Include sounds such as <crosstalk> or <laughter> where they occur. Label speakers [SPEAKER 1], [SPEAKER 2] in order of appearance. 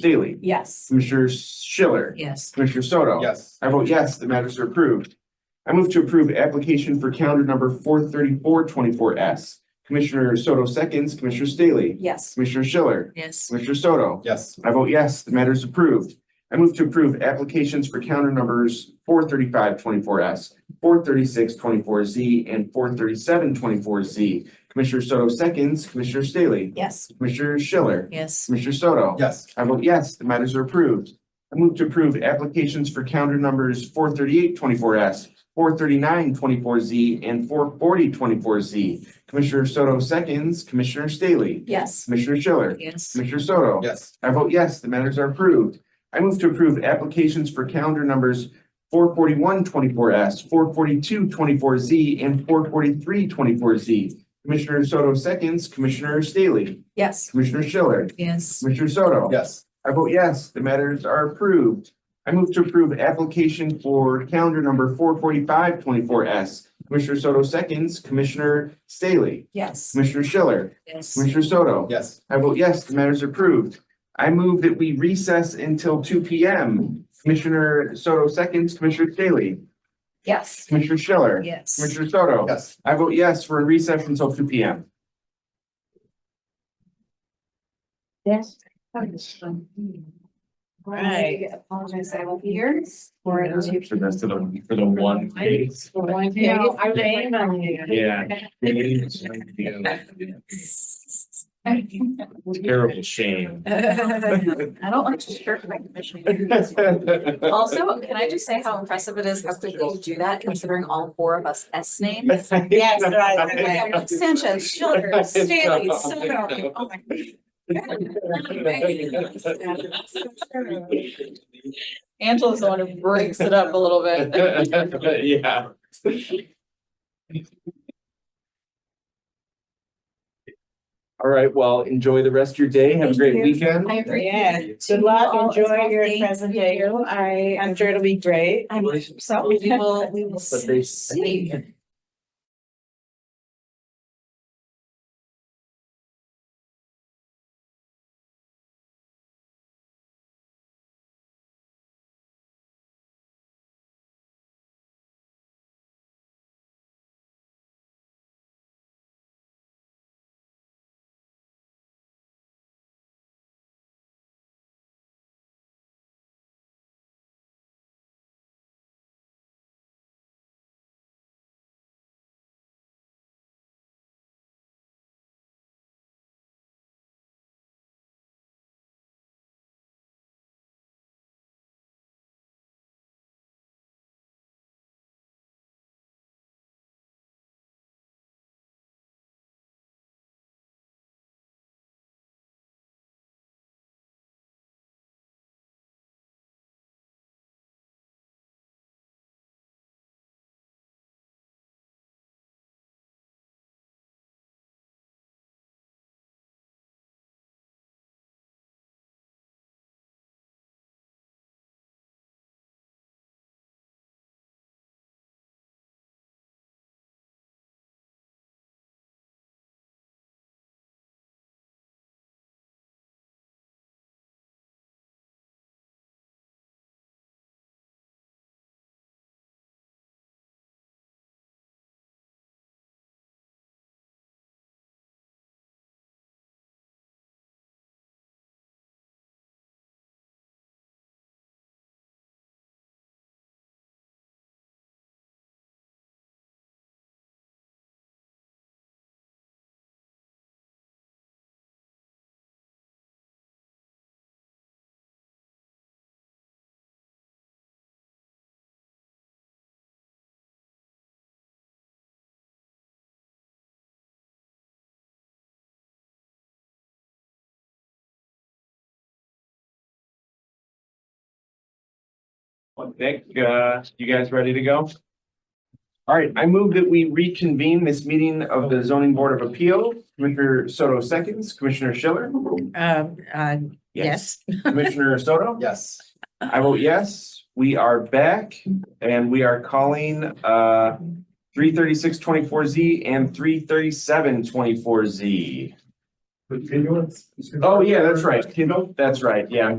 [SPEAKER 1] Staley,
[SPEAKER 2] Yes.
[SPEAKER 1] Commissioner Schiller,
[SPEAKER 2] Yes.
[SPEAKER 1] Commissioner Soto.
[SPEAKER 3] Yes.
[SPEAKER 1] I vote yes, the matters are approved. I move to approve application for calendar number four thirty-four twenty-four S. Commissioner Soto seconds, Commissioner Staley,
[SPEAKER 2] Yes.
[SPEAKER 1] Commissioner Schiller,
[SPEAKER 2] Yes.
[SPEAKER 1] Commissioner Soto.
[SPEAKER 3] Yes.
[SPEAKER 1] I vote yes, the matter is approved. I move to approve applications for calendar numbers four thirty-five twenty-four S, four thirty-six twenty-four Z, and four thirty-seven twenty-four Z. Commissioner Soto seconds, Commissioner Staley,
[SPEAKER 2] Yes.
[SPEAKER 1] Commissioner Schiller,
[SPEAKER 2] Yes.
[SPEAKER 1] Commissioner Soto.
[SPEAKER 3] Yes.
[SPEAKER 1] I vote yes, the matters are approved. I move to approve applications for calendar numbers four thirty-eight twenty-four S, four thirty-nine twenty-four Z, and four forty twenty-four Z. Commissioner Soto seconds, Commissioner Staley,
[SPEAKER 2] Yes.
[SPEAKER 1] Commissioner Schiller,
[SPEAKER 2] Yes.
[SPEAKER 1] Commissioner Soto.
[SPEAKER 3] Yes.
[SPEAKER 1] I vote yes, the matters are approved. I move to approve applications for calendar numbers four forty-one twenty-four S, four forty-two twenty-four Z, and four forty-three twenty-four Z. Commissioner Soto seconds, Commissioner Staley,
[SPEAKER 2] Yes.
[SPEAKER 1] Commissioner Schiller,
[SPEAKER 2] Yes.
[SPEAKER 1] Commissioner Soto.
[SPEAKER 3] Yes.
[SPEAKER 1] I vote yes, the matters are approved. I move to approve application for calendar number four forty-five twenty-four S. Commissioner Soto seconds, Commissioner Staley,
[SPEAKER 2] Yes.
[SPEAKER 1] Commissioner Schiller,
[SPEAKER 2] Yes.
[SPEAKER 1] Commissioner Soto.
[SPEAKER 3] Yes.
[SPEAKER 1] I vote yes, the matter is approved. I move that we recess until two P M. Commissioner Soto seconds, Commissioner Staley,
[SPEAKER 2] Yes.
[SPEAKER 1] Commissioner Schiller,
[SPEAKER 2] Yes.
[SPEAKER 1] Commissioner Soto.
[SPEAKER 3] Yes.
[SPEAKER 1] I vote yes, we're in recess until two P M.
[SPEAKER 4] Yes. I apologize, I won't be here. For two.
[SPEAKER 5] So that's for the, for the one case.
[SPEAKER 4] For one case.
[SPEAKER 2] No,
[SPEAKER 4] I'm emailing you.
[SPEAKER 5] Yeah. Terrible
[SPEAKER 2] <laughs>
[SPEAKER 5] shame.
[SPEAKER 2] I don't like to share
[SPEAKER 1] <laughs>
[SPEAKER 2] my commission. Also, can I just say how impressive it is how quickly you do that considering all four of us S names?
[SPEAKER 1] <laughs> Yes, <laughs>
[SPEAKER 2] Sanchez, Schiller, Staley, Soto. Oh my Angela's the one who breaks it up a little bit.
[SPEAKER 1] <laughs>
[SPEAKER 5] Yeah.
[SPEAKER 1] All right, well, enjoy the rest of your day. Have a
[SPEAKER 2] Thank
[SPEAKER 1] great
[SPEAKER 2] you.
[SPEAKER 1] weekend.
[SPEAKER 4] I agree.
[SPEAKER 6] Yeah,
[SPEAKER 2] To
[SPEAKER 6] good
[SPEAKER 2] you
[SPEAKER 6] luck,
[SPEAKER 2] all as
[SPEAKER 6] enjoy
[SPEAKER 2] well.
[SPEAKER 6] your
[SPEAKER 2] Thank you.
[SPEAKER 6] presentation, I, I'm sure it'll be great.
[SPEAKER 2] I'm so, we will, we <laughs> will
[SPEAKER 5] But they-
[SPEAKER 2] see.
[SPEAKER 1] Well, Nick, uh, you guys ready to go? All right, I move that we reconvene this meeting of the zoning board of appeal. Commissioner Soto seconds, Commissioner Schiller.
[SPEAKER 6] Um, uh, yes.
[SPEAKER 1] Commissioner Soto?
[SPEAKER 3] Yes.
[SPEAKER 1] I vote yes. We are back and we are calling uh three thirty-six twenty-four Z and three thirty-seven twenty-four Z.
[SPEAKER 3] Continuance.
[SPEAKER 1] Oh, yeah, that's right. That's right. Yeah,